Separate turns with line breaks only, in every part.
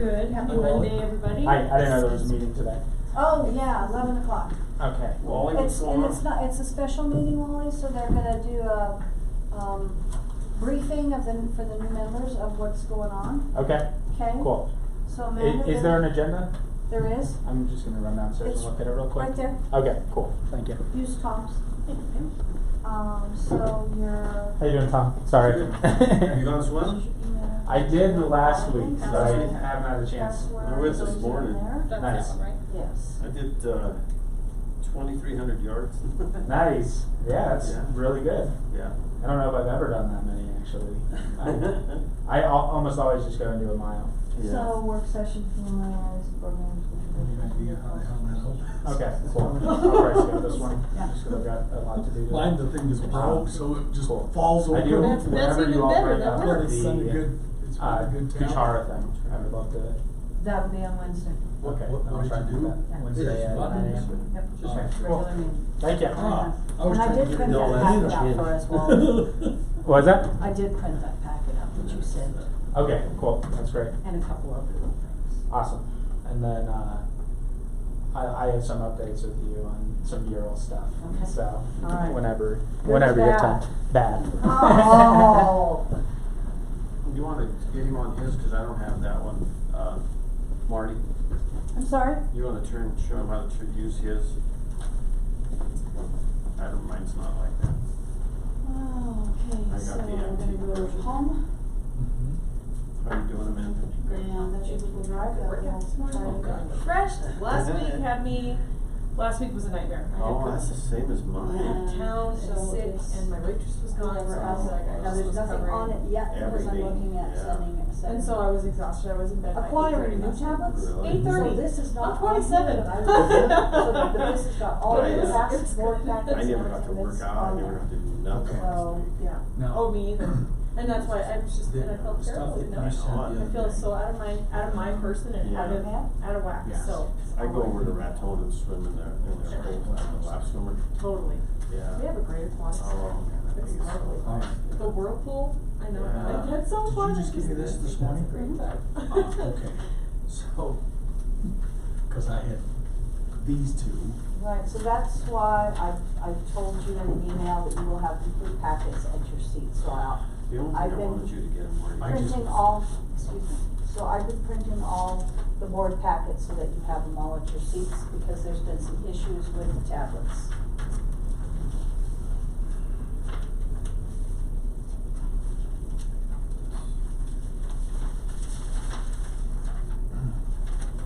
Good, happy
Hello.
Monday, everybody.
I, I didn't know there was a meeting today.
Oh, yeah, eleven o'clock.
Okay.
Wally would
It's, and
form.
it's not, it's a special meeting, Wally, so they're gonna do a, um, briefing of the, for the new members of what's going on,
Okay,
okay?
cool.
So
I-
Amanda.
Is there an agenda?
There is,
I'm just gonna run downstairs and
It's
look at it real quick.
right there,
Okay, cool, thank you.
use Tom's. Um, so your.
How you doing, Tom? Sorry.
Good. Have you gone swim?
I did the last week, so I
That's-
haven't had a chance.
That's where.
There was this
it goes in
morning.
there.
That's
Nice.
that one, right?
Yes.
I did, uh, twenty-three hundred yards.
Nice, yeah, that's
Yeah.
really good.
Yeah.
I don't know if I've ever done that many, actually. I I al- almost always just go and do a mile.
So work session formalized, board members.
Maybe I hung that up.
Okay, cool. I'll probably skip this one, just 'cause I've got a lot to do. today. Um,
Mine, the thing is broke, so it just
Cool.
falls over.
I do,
That's- that's
whenever
even
you all
better,
bring
that
up
But it's a
the,
good, it's
uh,
been a good town.
Kuchara thing, I would love to.
That would be on Wednesday.
Okay,
What- what
I'll
did
try
you
and do
do?
that
Yeah.
Wednesday at
Yeah.
9 a.m.
Yep, just
Okay,
regular
cool.
meeting.
Thank you.
Ah,
And
I was
I
trying to
did
get
print
it all
that
out.
packet out for us, Wally.
Was that?
I did print that packet out that you sent,
Okay, cool, that's great,
and a couple other little things.
awesome. And then, uh, I, I have some updates with you on some mural stuff,
Okay.
so,
All right.
whenever,
Good
whenever you have
bad.
time. Bad.
Oh.
You wanna get him on his, cause I don't have that one, uh, Marty,
I'm sorry?
you wanna turn, show him how to tr- use his? I don't, mine's not like that.
Oh,
I
okay,
got
so
the
we're gonna
antique
go to
version.
home.
How you doing, Amanda?
And that you can drive that
Workout
whole
this morning.
time.
Okay.
Fresh, last week had me, last week was a nightmare. I had
Oh, that's
to
the same as
go out
mine.
of town
So
and
it's-
sick, and my waitress was gone, so I was like, I
Now,
just
there's
was
nothing on
covering.
it yet, because I'm
Everything,
looking at
yeah.
sending it, sending.
And so I was exhausted, I was in bed by
Acquiring new
8:30 last night.
tablets?
Really?
Eight thirty.
So this is
I'm
not.
27.
on here, but I- So the- the- this has got all
Right,
the
yeah.
past board packets.
I
and
never got to
everything
work
that's
out, I
on
never
there.
got to do nothing last
So,
week.
yeah.
Now,
Oh, me either. And that's why I'm just,
the
and I felt
stuff
terrible,
that
you
you
know,
sent
I
the
I
other
feel
day.
so out of my, out of my person and out of,
Yeah.
out of whack,
Yes.
so.
I go over to Raton and swim in there, in their pool, I'm a lap swimmer,
Totally.
Uh,
yeah.
We have a great aquatic center.
Oh, man, that
It's
thing is so
lovely.
hot.
The whirlpool, I know,
Yeah.
I've had so
Did
fun.
you just give me this this morning?
That's a great
Ah,
time.
okay, so, cause I had these two,
Right, so that's why I, I told you in an email that you will have complete packets at your seat, so I'll,
The only
I've
thing I
been-
wanted you to get him
I
where
just-
printing all, excuse me, so I've been printing all the board packets so that you have them all at your seats, because there's been some issues with the tablets.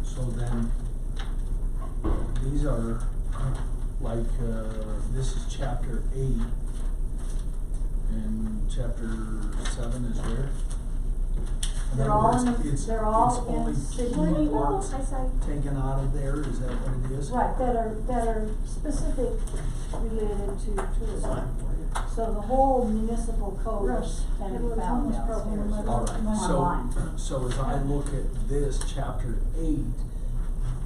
so then, these are, like, uh, this is chapter eight. And chapter seven is where? In
They're
other
all
words,
in,
it's-
the- they're all in
It's only
signature
key
notes,
words
I say,
taken out of there, is that what it is?
right, that are, that are specific related to tourism. So the whole municipal code
Russ,
can
I
be
wrote
found
Tom's problem in my
downstairs.
book.
Alright, so,
Online.
so as I look at this, chapter eight,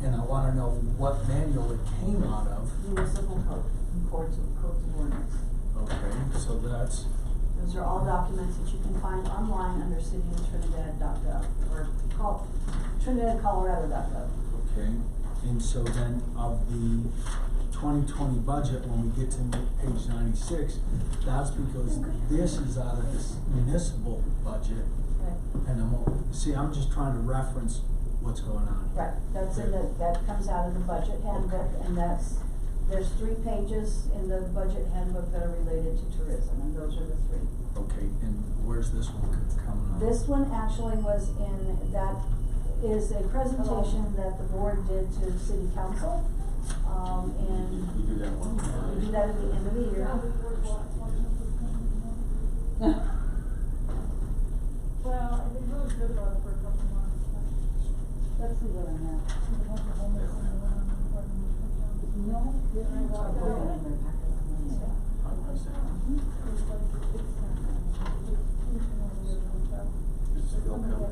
and I wanna know what manual it came out of,
Municipal code, and codes of, codes of ordinance.
okay, so that's,
Those are all documents that you can find online under cityofTrinidad.gov or call, TrinidadColorado.gov.
okay. And so then of the twenty twenty budget, when we get to ma- page ninety-six, that's because this is out of this municipal budget. And I'm, all- see, I'm just trying to reference what's going on here.
Right, that's in the, that comes out of the budget handbook and that's, there's three pages in the budget handbook that are related to tourism and those are the three.
Okay, and where's this one c- coming up?
This one actually was in, that is a presentation that the board did to city council. Um, and
You do that one.
we do that at the end of the year.
Well, I've been really good about it for a couple of months.
Let's see what I have. No, you're
not going
On Wednesday. It's still coming.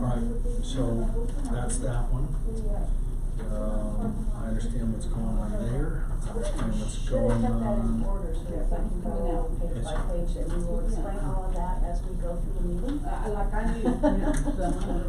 Alright, so that's that one. So, Um, I understand what's going on there, I understand what's
Should have kept
going
that in
on.
order, so that I can go down page by page, and we will explain all of that as we go through the meeting.
I- I like I knew, you know, the-